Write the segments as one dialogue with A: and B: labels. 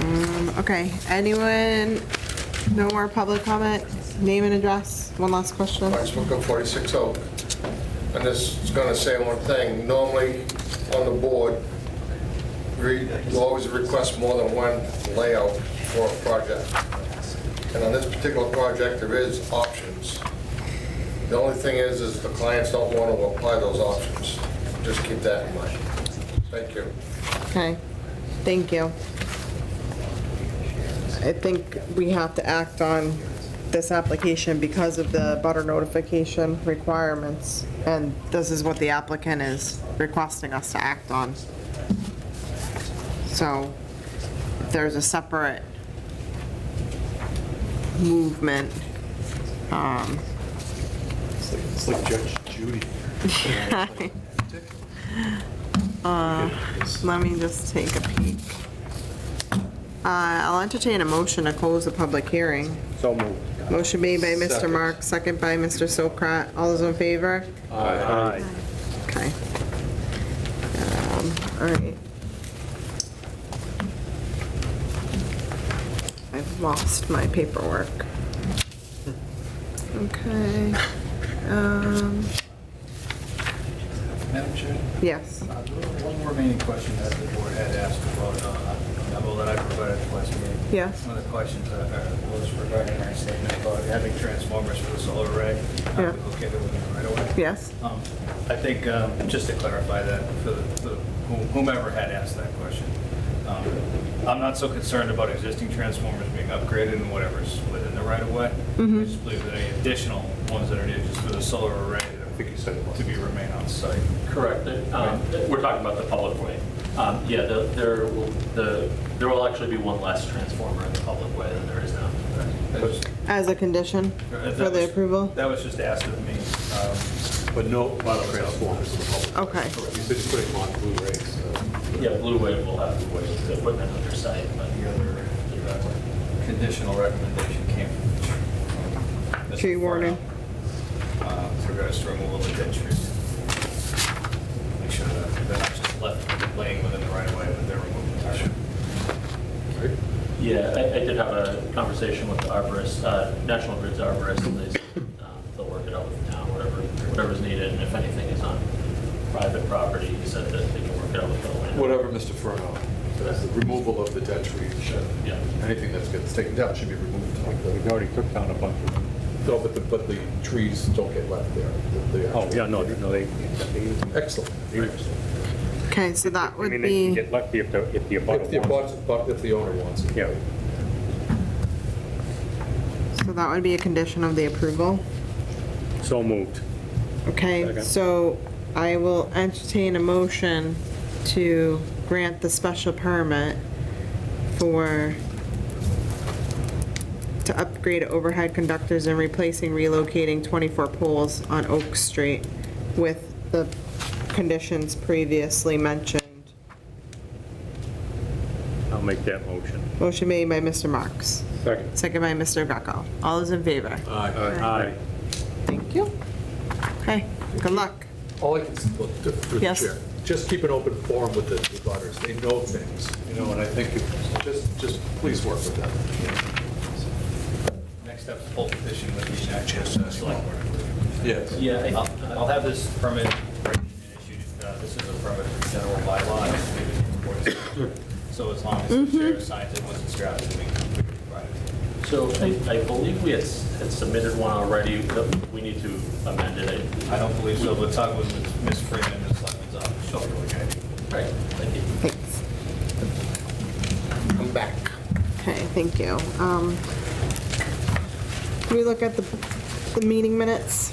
A: Um, Okay, anyone, no more public comment? Name and address, one last question.
B: Lawrence Booker, 46 Oak. oh. And this is going to say one thing. Normally, on the board, we you always request more than one layout for a project. And on this particular project, there is options. The only thing is, is the clients don't want to apply those options. Just keep that in mind. Thank you.
A: Okay, thank you. I think we have to act on this application because of the butter notification requirements, and this is what the applicant is requesting us to act on. So if there's a separate movement, um,
C: It's like- It's like Judge Judy.
A: Uh, Let me just take a peek. Uh, I'll entertain a motion to close the public hearing.
C: So moved.
A: Motion made by Mr.
C: Second.
A: Mark, second by Mr. Sokrat. All those in favor?
C: Aye.
A: Okay. Um, All right. I've lost my paperwork. Okay. Um,
D: Madam Chair,
A: yes.
D: uh, one more remaining question that the board had asked about uh, a memo that I provided at the last meeting.
A: Yes.
D: One of the questions uh, uh, was regarding our statement about having transformers for the solar array. uh,
A: Yeah.
D: Located within the right of way.
A: Yes.
D: Um, I think, um, just to clarify that, for the- for whomever had asked that question, um, I'm not so concerned about existing transformers being upgraded and whatever's within the right of way.
A: Mm-hmm.
D: I just believe that any additional ones that are needed just for the solar array to be remain on site.
E: Correct. Um, We're talking about the public way. Um, Yeah, the- there will, the, there will actually be one less transformer in the public way than there is now.
D: That's-
A: As a condition
D: that
A: for the
D: was-
A: approval?
D: That was just asked of me. um,
C: But no model transformers in the public.
A: Okay.
C: You said you're putting them on Blu-rays, so.
E: Yeah, Blue Wave will have to wait the equipment on their site, but the other, the other one.
D: Conditional recommendation came from. Mr.
A: Tree warden.
D: Farnell, uh, With regards to removal of dead trees. Make sure that they're not just left laying within the right of way, but they're removed entirely.
C: Right?
E: Yeah, I, I did have a conversation with the arborist, uh, National Grid's arborist, and they, said, um, they'll work it out with the town, whatever, whatever's needed, and if anything is on private property, he said that they can work it out with the land.
C: Whatever Mr. Furlong, says, the removal of the dead trees,
E: Yeah.
C: anything that's gets taken down should be removed. We already took down a bunch of them. No, but the, but the trees don't get left there. the- the
F: Oh,
C: actual-
F: yeah, no, no, they,
C: Excellent.
A: Okay, so that
F: I
A: would be.
F: mean, they can get lucky if the, if the
C: If the,
F: abutter wants.
C: abut- but if the owner wants it.
F: Yeah.
A: So that would be a condition of the approval.
F: So moved.
A: Okay,
F: Second.
A: so I will entertain a motion to grant the special permit for, to upgrade overhead conductors and replacing relocating 24 poles on Oak Street with the conditions previously mentioned.
F: I'll make that motion.
A: Motion made by Mr. Marks,
F: Second.
A: second by Mr. Greco. All those in favor?
F: Aye.
A: Thank you. Okay, good luck.
C: All I can, s- look, th- through the
A: Yes.
C: chair, just keep an open forum with the the butters, they know things, you know, and I think, if- just, just please work with them.
D: Next step is full petition with the uh, select board.
C: Yes.
D: Yeah, I- I'll I'll have this permit written and issued. Uh, This is a permit for general bylaw. and it's leaving the board's signature. So as long as the chair signs it, once it's drafted, we can we can provide it.
E: So I, I believe we had s- had submitted one already, but we need to amend it. I-
D: I don't believe so, but talk with Ms. Freeman and the selectmen's office. She'll be okay.
E: Right, thank you.
A: Thanks.
B: I'm back.
A: Okay, thank you. Um, Can we look at the, the meeting minutes?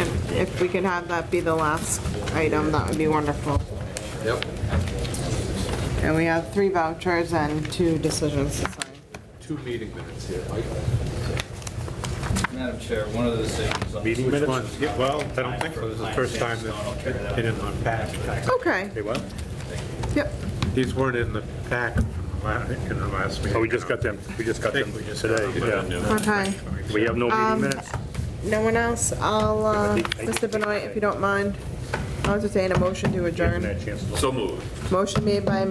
A: If- If we could have that be the last item, that would be wonderful.
C: Yep.
A: And we have three vouchers and two decisions to sign.
C: Two meeting minutes here, Mike.
D: Madam Chair, one of the decisions. on-
F: Meeting
D: Which
F: minutes?
D: was-
F: Yeah, Well, I don't think so. This is the first time that they didn't unpack.
A: Okay,
F: They what?
A: yep,
G: These weren't in the pack from the la- in the last meeting.
F: Oh, we just got them, we just got
G: I think
F: them
G: we just got
F: today,
G: them.
F: yeah.
A: okay.
F: We have no
A: Um,
F: meeting minutes?
A: No one else? I'll, uh, Mr. Benoit, if you don't mind, I'll entertain a motion to
F: Given
A: adjourn.
F: that chance to-
A: Motion made by